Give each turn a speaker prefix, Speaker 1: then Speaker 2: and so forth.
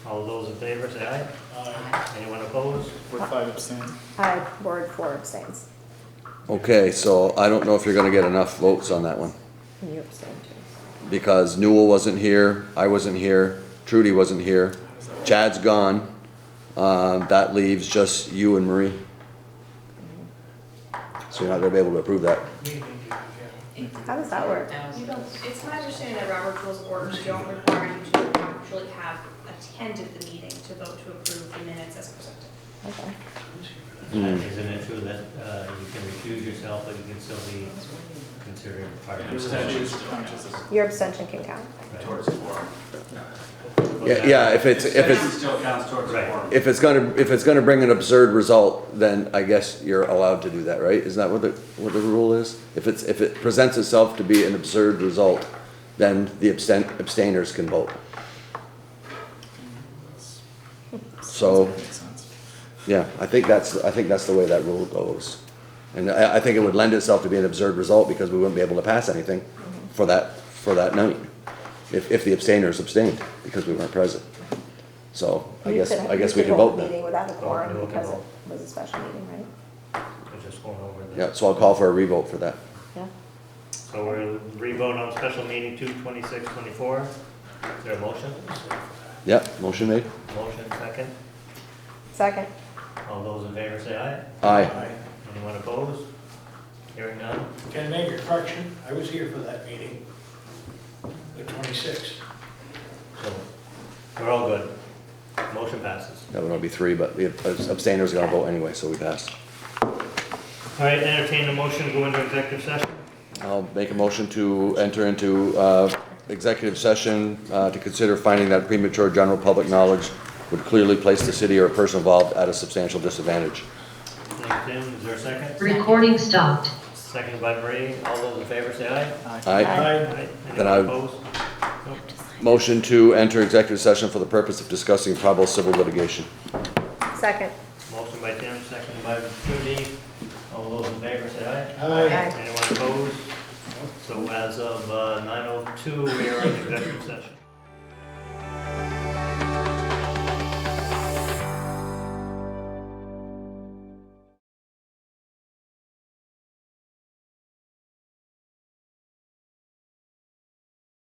Speaker 1: All those in favor, say aye. Aye. Anyone opposed?
Speaker 2: With five abstain.
Speaker 3: Uh, Ward four abstains.
Speaker 4: Okay, so I don't know if you're gonna get enough votes on that one,
Speaker 3: And you abstain too.
Speaker 4: because Newell wasn't here, I wasn't here, Trudy wasn't here, Chad's gone. Uh, that leaves just you and Marie. So you're not gonna be able to approve that.
Speaker 3: How does that work?
Speaker 5: You don't, it's my understanding that Robert Rules of Orders don't require you to actually have attended the meeting to vote to approve the minutes as presented.
Speaker 3: Okay.
Speaker 4: Mm.
Speaker 1: Isn't it true that uh, you can recuse yourself, but you can still be considered part of the session?
Speaker 3: Your abstention can count.
Speaker 6: towards the forum.
Speaker 4: Yeah, yeah, if it's, if
Speaker 6: Abstention
Speaker 4: it's,
Speaker 6: Still counts towards the
Speaker 1: Right.
Speaker 6: forum.
Speaker 4: if it's gonna, if it's gonna bring an absurd result, then I guess you're allowed to do that, right? Isn't that what the, what the rule is? If it's, if it presents itself to be an absurd result, then the abstain, abstainers can vote. So,
Speaker 2: Makes sense.
Speaker 4: yeah, I think that's, I think that's the way that rule goes. And I, I think it would lend itself to be an absurd result because we wouldn't be able to pass anything for that, for that night. If, if the abstainers abstained because we weren't present. So I
Speaker 3: You
Speaker 4: guess,
Speaker 3: could-
Speaker 4: I
Speaker 3: you
Speaker 4: guess we
Speaker 3: could
Speaker 4: can
Speaker 3: hold
Speaker 4: vote
Speaker 3: the
Speaker 4: then.
Speaker 3: Meeting without a
Speaker 1: Oh,
Speaker 3: quorum
Speaker 1: we can
Speaker 3: because it
Speaker 1: vote.
Speaker 3: was a special meeting, right?
Speaker 1: We're just going over the.
Speaker 4: Yeah, so I'll call for a revote for that.
Speaker 3: Yeah.
Speaker 1: So we're re-vote on special meeting two twenty-six twenty-four. Is there a motion?
Speaker 4: Yeah, motion made?
Speaker 1: Motion second.
Speaker 3: Second.
Speaker 1: All those in favor, say aye.
Speaker 4: Aye.
Speaker 1: Anyone opposed? Hearing none?
Speaker 7: Can I make a correction? I was here for that meeting, the 26th.
Speaker 1: So we're all good. Motion passes.
Speaker 4: That would only be three, but the abstainers are gonna vote anyway, so we passed.
Speaker 1: All right, entertain a motion to go into executive session.
Speaker 4: I'll make a motion to enter into uh, executive session uh, to consider finding that premature general public knowledge would clearly place the city or a person involved at a substantial disadvantage.
Speaker 1: Thank you, Tim. Is there a second?
Speaker 8: Recording stopped.
Speaker 1: Second by Marie. All those in favor, say aye.
Speaker 4: Aye.
Speaker 7: I
Speaker 1: Aye.
Speaker 4: Then
Speaker 1: Anyone
Speaker 4: I-
Speaker 1: opposed? Nope.
Speaker 4: Motion to enter executive session for the purpose of discussing probable civil litigation.
Speaker 3: Second.
Speaker 1: Motion by Tim, second by Judy. All those in favor, say aye.
Speaker 3: Aye.
Speaker 1: uh, Anyone opposed? So as of nine oh two, we are in executive session.